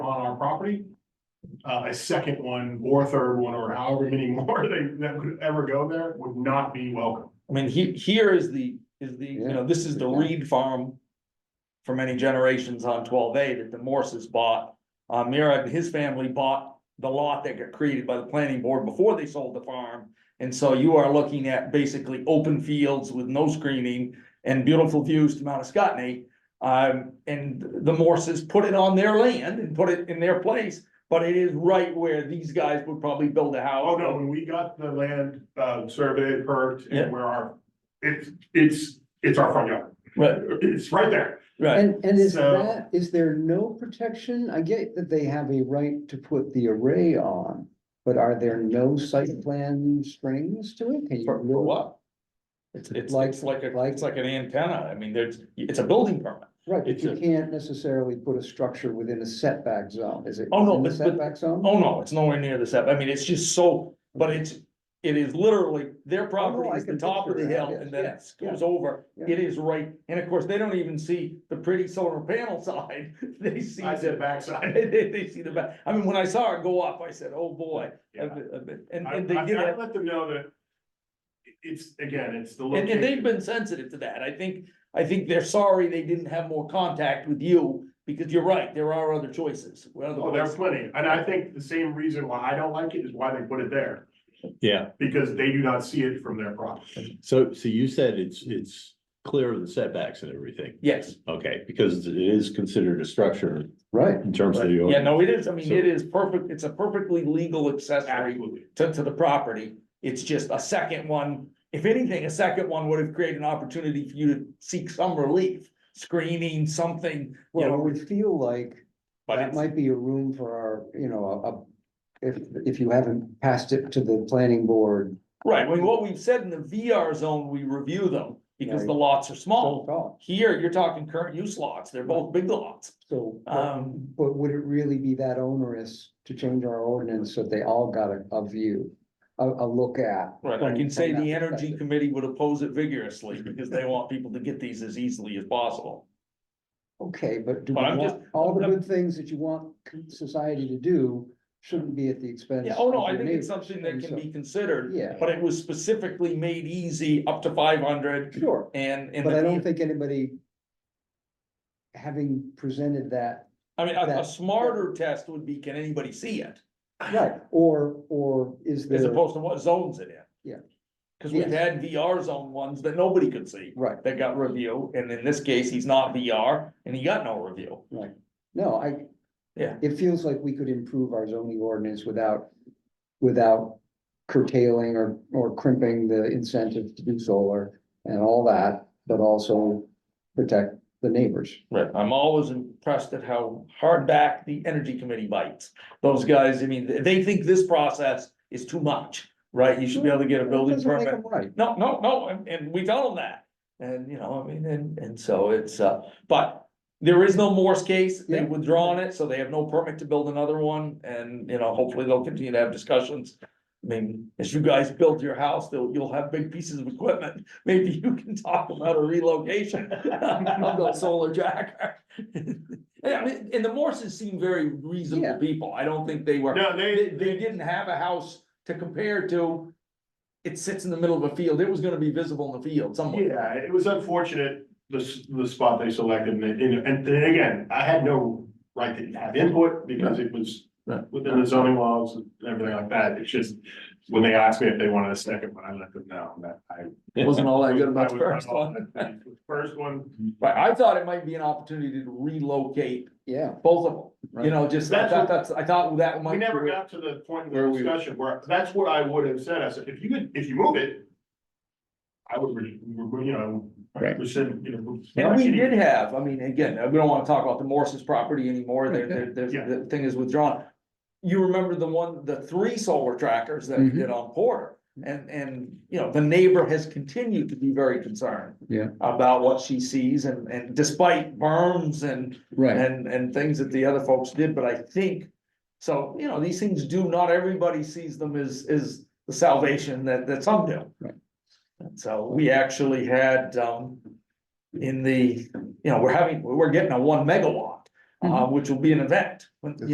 property. Uh, a second one or a third one or however many more they, that would ever go there would not be welcome. I mean, he, here is the, is the, you know, this is the Reed farm. For many generations on twelve A that the Morses bought. Uh, Mira and his family bought the lot that got created by the planning board before they sold the farm. And so you are looking at basically open fields with no screening and beautiful views to Mount Escotney. Um, and the Morses put it on their land and put it in their place, but it is right where these guys would probably build a house. Oh, no, when we got the land, uh, surveyed, perked, Yeah. and where our, it's, it's, it's our front yard. Right, It's right there. right. And, and is So- that, is there no protection? I get that they have a right to put the array on, but are there no site plan strings to it? Can you For, for really- what? It's, it's, Like- it's like a, like- it's like an antenna, I mean, there's, it's a building permit. Right, but It's you a- can't necessarily put a structure within a setback zone, is it? Oh, no, in the but- but- Setback zone? Oh, no, it's nowhere near the set, I mean, it's just so, but it's, it is literally, their property Oh, I is the can top of the picture that, hill, yes, and then yeah, it goes over. yeah. It is right, and of course, they don't even see the pretty solar panel side, they see I said the, backside. they, they- they see the back. I mean, when I saw it go up, I said, oh, boy. Yeah. I've been- I've been- And, I, and they I, did I it, let them know that it- it's, again, it's the and, and they've location. been sensitive to that, I think, I think they're sorry they didn't have more contact with you, because you're right, there are other choices. Oh, there's plenty. And I think the same reason why I don't like it is why they put it there, Yeah, because they do not see it from their property. so, so you said it's, it's clear of the setbacks and everything, Yes, okay, because it is considered a structure Right, in terms of the. yeah, no, it is, I mean, So- it is perfect, it's a perfectly legal accessory Absolutely. to, to the property. It's just a second one, if anything, a second one would have created an opportunity for you to seek some relief, screening, something, you well, it know, would feel like but That it's, might be a room for our, you know, a, a- if, if you haven't passed it to the planning board. right, I mean, what we've said in the VR zone, we review them, because Right. the lots are don't small. talk. Here, you're talking current use lots, they're both big lots, So, but- um, but would it really be that onerous to change our ordinance so they all got a, a view, a, a look at? Right, I from- can say from the that energy perspective? committee would oppose it vigorously because they want people to get these as easily as possible. Okay, but do we But I'm want, just- all the I'm- good things that you want society to do shouldn't be at the expense. Yeah, oh no, of I your think it's neighbor. something that and can so- be considered, Yeah. but it was specifically made easy up to five hundred Sure. and, and. But I the- don't think anybody having presented that I mean, a, a that- smarter test would be, can anybody see it? Right, or, or is As there, opposed to what zones it in. Yeah. Cause we've Yes. had VR zone ones that nobody could see, right, that got review, and in this case, he's not VR and he got no review. right, no, I. Yeah. It feels like we could improve our zoning ordinance without, without curtailing or, or crimping the incentive to do solar and all that, but also protect the neighbors. Right, I'm always impressed at how hard back the energy committee bites. Those guys, I mean, th- they think this process is too much, right? You should be able to get a building Doesn't make permit. 'em Right, No, no, no, and, and we tell them that. And, you know, I mean, and, and so it's, uh, but there is no Morse case. They've Yeah. withdrawn it, so they have no permit to build another one. And, you know, hopefully they'll continue to have discussions. I mean, as you guys build your house, they'll, you'll have big pieces of equipment. Maybe you can talk about a relocation of the solar jacker. Yeah, I mean, and the Morses seem very reasonable Yeah. people. I don't think they were No, they, they, they didn't have a house to compare to. It sits in the middle of a field, it was gonna be visible in the field somewhere. Yeah, it was unfortunate, the, s- the spot they selected, and, it- and then again, I had no right to have input, because it was Right. within the zoning laws and everything like that, it's just, when they asked me if they wanted a second one, I let them know that I. It wasn't all that good about I the was not first all one. Mm-hmm. that pleased with the First one, But I thought it might be an opportunity to relocate yeah, both of them, you know, just, I That's thought what- that's, I thought that might. we never be- got to the point Where in the we- discussion where, that's what I would have said, I said, if you could, if you move it. I would, re- re- you know, Right. we said, you know. And we did have, I mean, again, we don't wanna talk about the Morse's property anymore, There- there- there's- Yeah. the thing is withdrawn. You remember the one, the three solar trackers that we Mhm. did on Porter, and, and, you know, the neighbor has continued to be very concerned. Yeah. About what she sees, and, and despite berms and, right, and, and things that the other folks did, but I think. So, you know, these things do, not everybody sees them as, as the salvation that, that some do. Right. And so we actually had, um, Mm-hmm. in the, you know, we're having, we're getting a one megawatt, uh, which will be an event. when-